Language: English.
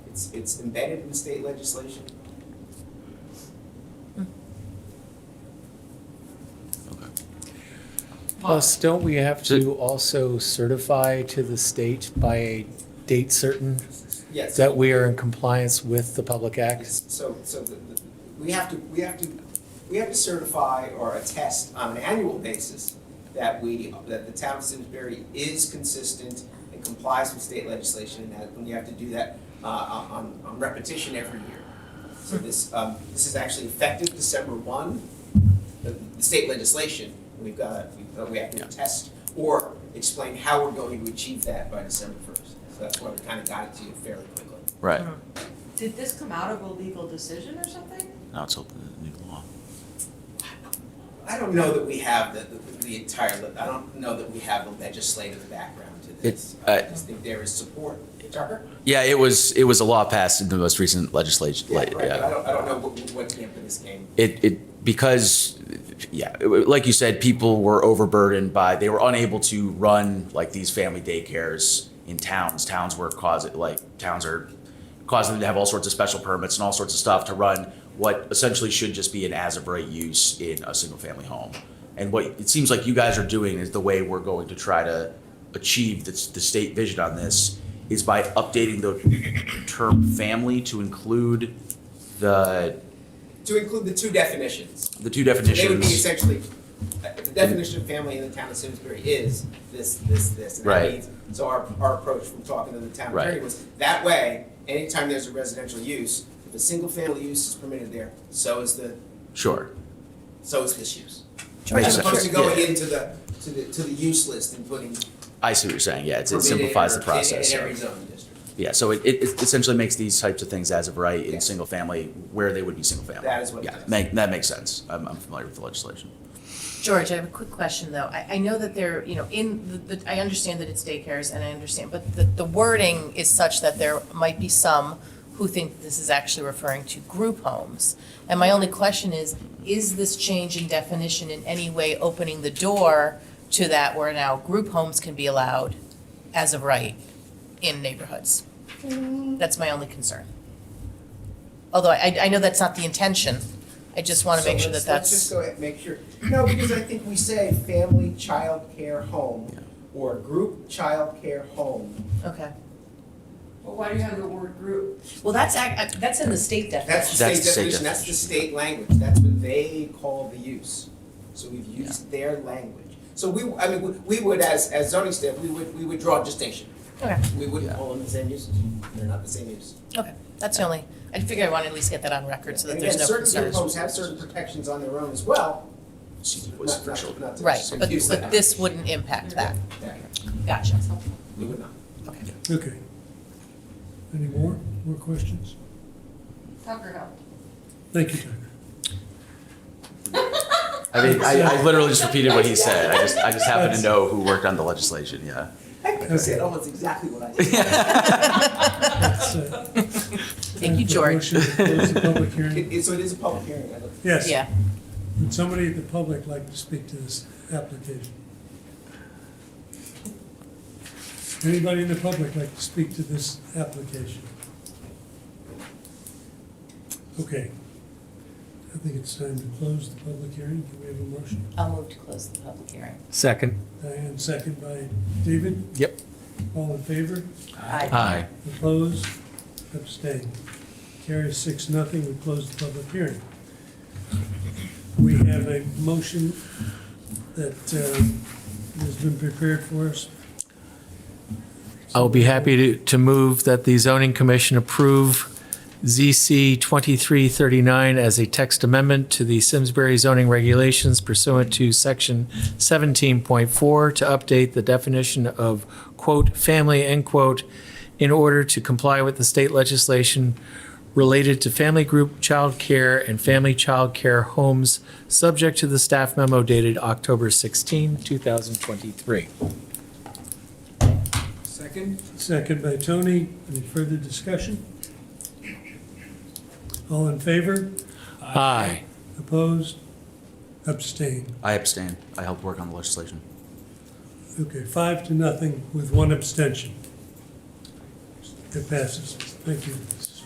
It's, it's embedded in the state legislation. Plus, don't we have So- to also certify to the state by a date certain Yes. that we are in compliance with the Public Act? Yes, So, so the, the, we have to, we have to, we have to certify or attest on an annual basis that we, that the town of Simsbury is consistent and complies with state legislation, and that, and we have to do that, uh, on, on repetition every year. So this, um, this is actually effective December one, the, the state legislation, we've got, we, uh, we have to attest or explain how we're going to achieve that by December first. So that's why we kind of got it to you fairly quickly. Right. Did this come out of a legal decision or something? Now it's open to the new law. I don't know that we have the, the- the entire, le- I don't know that we have the legislative background to this. It- uh, I- I just think there is support. Tucker? Yeah, it was it was a law passed in the most recent legislation. Yeah, Yeah, right, but I don't, I don't know what, what camp in this game. It it because yeah, it- like you said, people were overburdened by they were unable to run like these family daycares in towns. Towns were causing like towns are causing them to have all sorts of special permits and all sorts of stuff to run what essentially should just be an as of right use in a single family home. And what it seems like you guys are doing is the way we're going to try to achieve the, the state vision on this is by updating the term family to include the To include the two definitions. the two So definitions. They would be essentially, uh, the definition of family in the town of Simsbury is this, this, this. and that Right. means- So our, our approach from talking to the town Right. attorney was, that way, anytime there's a residential use, if a single family use is permitted there, so is the, Sure. so is this use. Makes As opposed sense. to going Yeah. into the, to the, to the use list and putting I see what you're saying. Yeah, it's, it permitted simplifies or the process. In yeah. every zoning district. Yeah, so it, it it essentially makes these types of things as of right in Yeah. single family where they would be single family. That is what it Yeah, is. make, that makes sense. I'm, I'm familiar with the legislation. George, I have a quick question, though. I, I know that they're, you know, in the, the- I understand that it's daycares and I understand, but the, the wording is such that there might be some who think this is actually referring to group homes. And my only question is, is this change in definition in any way opening the door to that where now group homes can be allowed as of right in neighborhoods? That's my only concern. Although I, I know that's not the intention. I just want to make So sure that let's- Let's that's. just go ahead and make sure, no, because I think we say family child care home Yeah. or group child care home. Okay. Well, why do you have the word group? Well, that's, ac- uh, that's in the state That's definition. the That's state the state definition, that's the state language, that's what they call the use. So we've used their language. So we, I mean, we we would, as, as zoning staff, we would, we would draw a distinction. Okay. We wouldn't Yeah. call them the same uses, they're not the same use. Okay, that's the only, I figure I want to at least get that on record so that And there's again, no certain group concerns. homes have certain protections on their own as well. See, Not- was for not- children. not to Right, just but, confuse but that. this wouldn't impact that. Yeah, Gotcha. We would not. Okay. Any more, more questions? Tucker helped. Thank you, Tucker. I mean, I, I literally just repeated what he said. I just I just happen to know who worked on the legislation. Yeah. I said almost exactly what I said. That's, uh, Thank you, time for a George. motion to Close the public hearing. It, it, so it is a public hearing, I look. Yes. Yeah. Would somebody in the public like to speak to this application? Anybody in the public like to speak to this application? Okay. I think it's time to close the public hearing. Do we have a motion? I'll move to close the public hearing. Second. Diane, second by David. Yep. All in favor? Aye. Hi. Opposed? Abstained. Carries six, nothing. We close the public hearing. We have a motion that uh, has been prepared for us. I'll be happy to, to move that the zoning commission approve ZC 2339 as a text amendment to the Simsbury zoning regulations pursuant to section 17.4 to update the definition of quote, "family," end quote, in order to comply with the state legislation related to family group child care and family child care homes, subject to the staff memo dated October 16, 2023. Second? Second by Tony. Any further discussion? All in favor? Aye. Opposed? Abstained. I abstain. I helped work on the legislation. Okay, five to nothing with one abstention. It passes. Thank you.